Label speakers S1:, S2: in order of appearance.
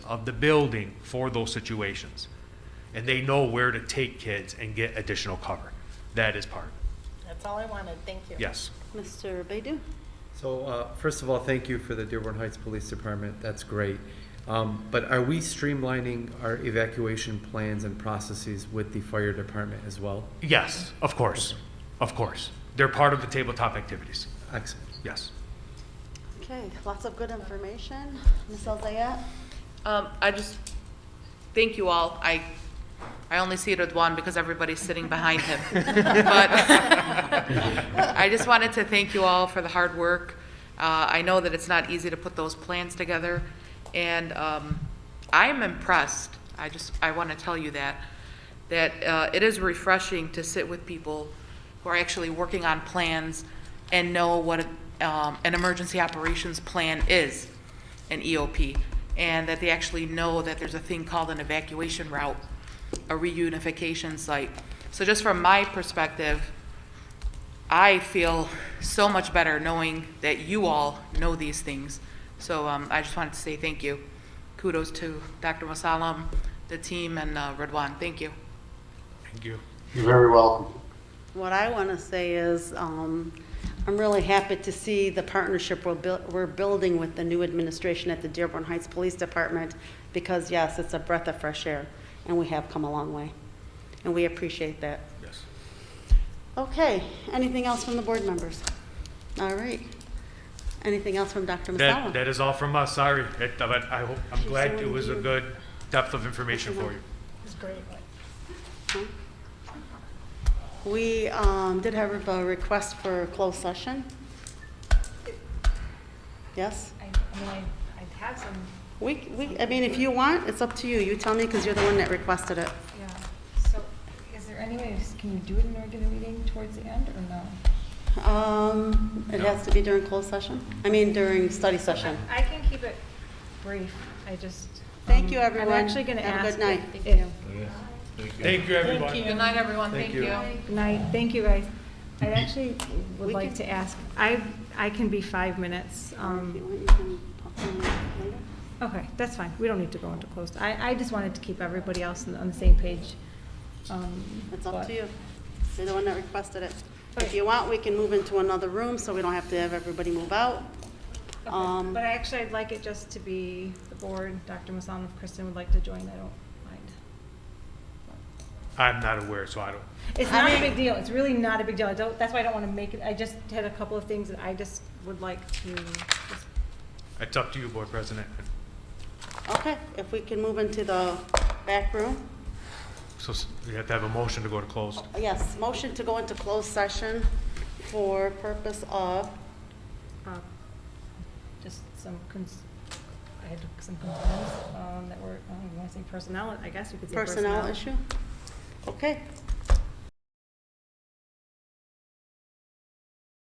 S1: of the building for those situations. And they know where to take kids and get additional cover. That is part.
S2: That's all I wanted, thank you.
S1: Yes.
S3: Mr. Baidu?
S4: So, uh, first of all, thank you for the Dearborn Heights Police Department, that's great. Um, But are we streamlining our evacuation plans and processes with the fire department as well?
S1: Yes, of course. Of course. They're part of the tabletop activities.
S4: Excellent.
S1: Yes.
S3: Okay, lots of good information. Ms. Elzayat?
S5: Um, I just, thank you all. I, I only see it with one because everybody's sitting behind him. But I just wanted to thank you all for the hard work. Uh, I know that it's not easy to put those plans together, and um, I'm impressed. I just, I want to tell you that, that uh, it is refreshing to sit with people who are actually working on plans and know what um, an emergency operations plan is an EOP, and that they actually know that there's a thing called an evacuation route, a reunification site. So just from my perspective, I feel so much better knowing that you all know these things. So um, I just wanted to say thank you. Kudos to Dr. Masalam, the team, and uh, Redwan. Thank you.
S1: Thank you.
S6: You're very welcome.
S3: What I want to say is, um, I'm really happy to see the partnership we're buil- we're building with the new administration at the Dearborn Heights Police Department, because yes, it's a breath of fresh air, and we have come a long way, and we appreciate that.
S1: Yes.
S3: Okay, anything else from the board members? All right. Anything else from Dr.
S1: That,
S3: Masalim?
S1: that is all from us. Sorry. It- But I hope, I'm
S3: She's
S1: glad
S3: so
S1: it was a
S3: eager.
S1: good depth of information for you.
S2: It's great.
S3: We um, did have a request for a closed session. Yes?
S7: I, I mean, I, I had some,
S3: We, we, I mean, if you want, it's up to you. You tell me, because you're the one that requested it.
S7: yeah, so is there any way, just- can you do it in a regular meeting towards the end or no?
S3: Um, it has to be during closed session? I mean, during study session.
S7: I can keep it brief, I just.
S3: Thank
S7: um,
S3: you, everyone.
S7: I'm actually gonna
S3: Have a
S7: ask.
S3: good night.
S7: if-
S1: Thank you, everyone.
S5: Good night, everyone. Thank you.
S7: if- Night, thank you guys. I actually would
S3: Mm-hmm. We
S7: like
S3: can-
S7: to ask, I, I can be five minutes,
S3: If you
S7: um,
S3: want, you can pop them later.
S7: okay, that's fine, we don't need to go into closed. I, I just wanted to keep everybody else on, on the same page. um,
S3: It's up
S7: but-
S3: to you. You're the one that requested it. If you want, we can move into another room, so we don't have to have everybody move out.
S7: Okay,
S3: Um,
S7: But actually, I'd like it just to be the board, Dr. Masan, if Kristen would like to join, I don't mind.
S1: I'm not aware, so I don't.
S7: It's
S3: I
S7: not a
S3: mean-
S7: big deal, it's really not a big deal, I don't, that's why I don't wanna make it, I just had a couple of things that I just would like to, just-
S1: It's up to you, Board President.
S3: Okay, if we can move into the back room.
S1: So s- we have to have a motion to go to closed.
S3: Oh, Yes, motion to go into closed session for purpose of,
S7: uh, just some cons, I had some um, concerns, um, that were, I don't wanna say personnel, I guess you could say personnel.
S3: Personnel issue? Okay,